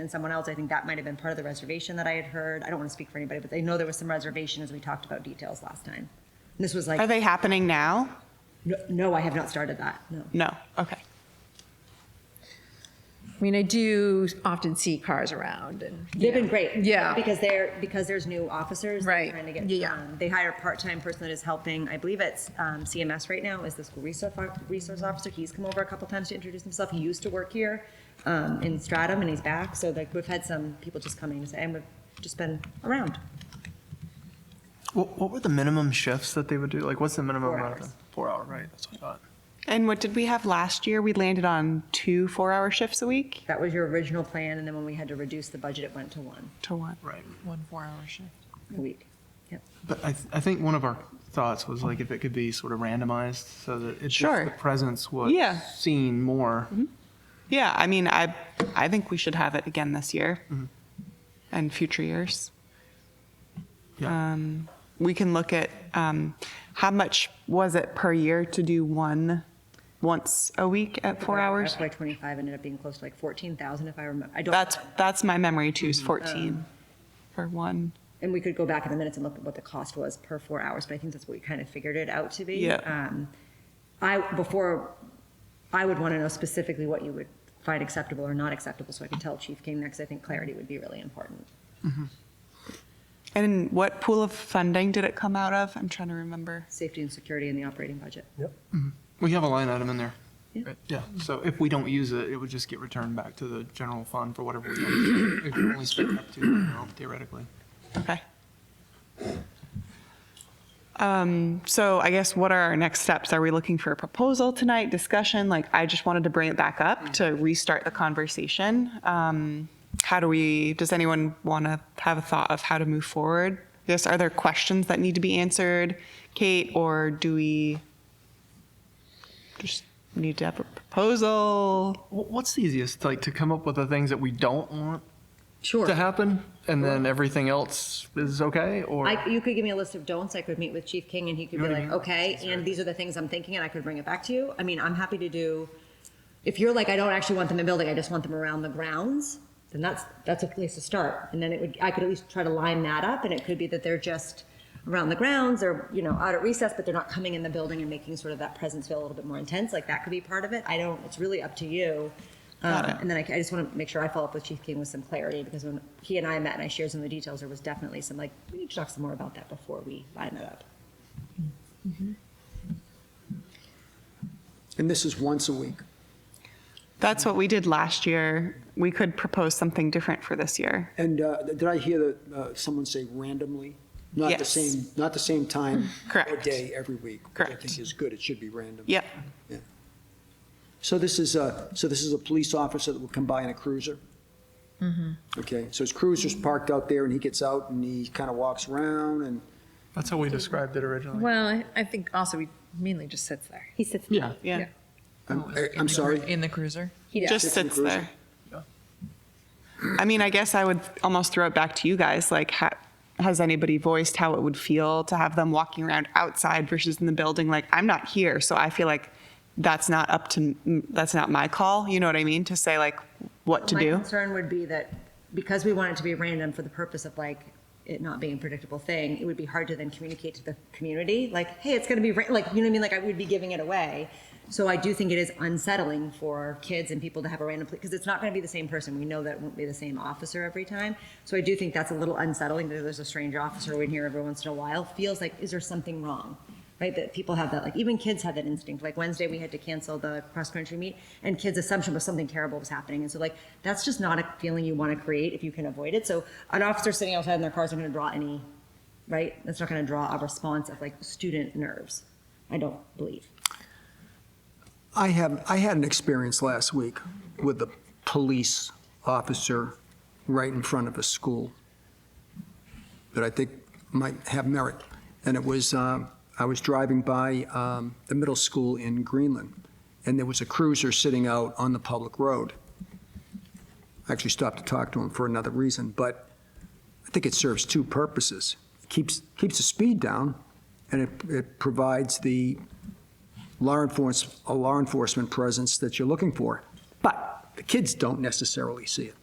and someone else. I think that might have been part of the reservation that I had heard. I don't want to speak for anybody, but I know there was some reservation as we talked about details last time. And this was Are like, they happening now? no, no, I have not started that, no. No, okay. I mean, I do often see cars around and. They've been great. Yeah. Because they're, because there's new officers. they're Right. Trying to get. Yeah. um, They hire a part-time person that is helping, I believe it's um, CMS right now, is the school resource, o- resource officer. He's come over a couple times to introduce himself. He used to work here um, in Stratham and he's back. So like, we've had some people just coming and we've just been around. What, what were the minimum shifts that they would do? Like, what's the minimum Four amount hours. of time? Four hour, right? That's what I thought. And what did we have last year? We landed on two four-hour shifts a week That was your original plan, and then when we had to reduce the budget, it went to one to one. Right. One four-hour shift. a week. Yep. But I, th- I think one of our thoughts was like if it could be sort of randomized so that it's Sure. just the presence was Yeah. seen more. Yeah, I mean, I, I think we should have it again this year and future years. Um, Yeah. We can look at um, how much was it per year to do one once a week at four hours? FY twenty-five ended up being close to like fourteen thousand, if I remember. I don't. That's, that's my memory too, is 14 for one. And we could go back in the minutes and look at what the cost was per four hours, but I think that's what we kind of figured it out to be. Yeah. Um, I, before, I would want to know specifically what you would find acceptable or not acceptable, so I could tell Chief King next. I think clarity would be really important. And what pool of funding did it come out of? I'm trying to remember. Safety and security in the operating budget. We have a line item in there. Yeah. right? Yeah. So if we don't use it, it would just get returned back to the general fund for whatever we don't- if we only spend up to you know, theoretically. Okay. Um, so I guess what are our next steps? Are we looking for a proposal tonight, discussion? Like, I just wanted to bring it back up to restart the conversation. Um, how do we, does anyone want to have a thought of how to move forward? Yes, are there questions that need to be answered, Kate, or do we just need to have a proposal? Wh- What's the easiest, like to come up with the things that we don't want Sure. to happen and then everything else is okay? Or I, you could give me a list of don'ts. I could meet with Chief King and he could be You know what I like, mean? okay, and these are the things I'm thinking, and I could bring it back to you. I mean, I'm happy to do. If you're like, I don't actually want them in the building, I just want them around the grounds, then that's that's a place to start. And then it would, I could at least try to line that up, and it could be that they're just around the grounds or you know out at recess, but they're not coming in the building and making sort of that presence feel a little bit more intense. Like that could be part of it. I don't. It's really up to you. Um, and then I, I just want to make sure I follow up with Chief King with some clarity because when he and I met and I shared some of the details, there was definitely some like, we need to talk some more about that before we line that up. And this is once a week. That's what we did last year. We could propose something different for this year. And uh, did I hear that uh, someone say randomly? Not the Yes. same, not the same time or Correct. day every week. which I Correct. think is good, it should be random. Yep. So this is a, so this is a police officer that will come by in a cruiser? Mm-hmm. Okay, so his cruiser's parked out there and he gets out and he kind of walks around and, that's how we described it originally. Well, I- I think also he mainly just sits there. He sits. Yeah. Yeah. I'm- er, Oh, is it in I'm the cru- sorry? In the cruiser? just Different sits version. there. I mean, I guess I would almost throw it back to you guys. Like, ha- has anybody voiced how it would feel to have them walking around outside versus in the building? Like, I'm not here, so I feel like that's not up to m- that's not my call. You know what I mean? To say like what to My do. concern would be that because we want it to be random for the purpose of like it not being a predictable thing, it would be hard to then communicate to the community, like, hey, it's gonna be, ra-" like, you know what I mean? Like, I would be giving it away. So I do think it is unsettling for kids and people to have a random, because it's not gonna be the same person. We know that it won't be the same officer every time. So I do think that's a little unsettling that there's a strange officer in here every once in a while. Feels like, is there something wrong? right? That people have that, like even kids have that instinct. Like Wednesday, we had to cancel the cross country meet, and kids' assumption was something terrible was happening, and so like that's just not a feeling you want to create if you can avoid it. So an officer sitting outside in their car isn't going to draw any, right? That's not going to draw a response of like student nerves. I don't believe. I have, I had an experience last week with a police officer right in front of a school that I think might have merit. And it was, um, I was driving by um, the middle school in Greenland, and there was a cruiser sitting out on the public road. I actually stopped to talk to him for another reason, but I think it serves two purposes. Keeps, keeps the speed down, and it, it provides the law enforcement, a law enforcement presence that you're looking for. But the kids don't necessarily see it.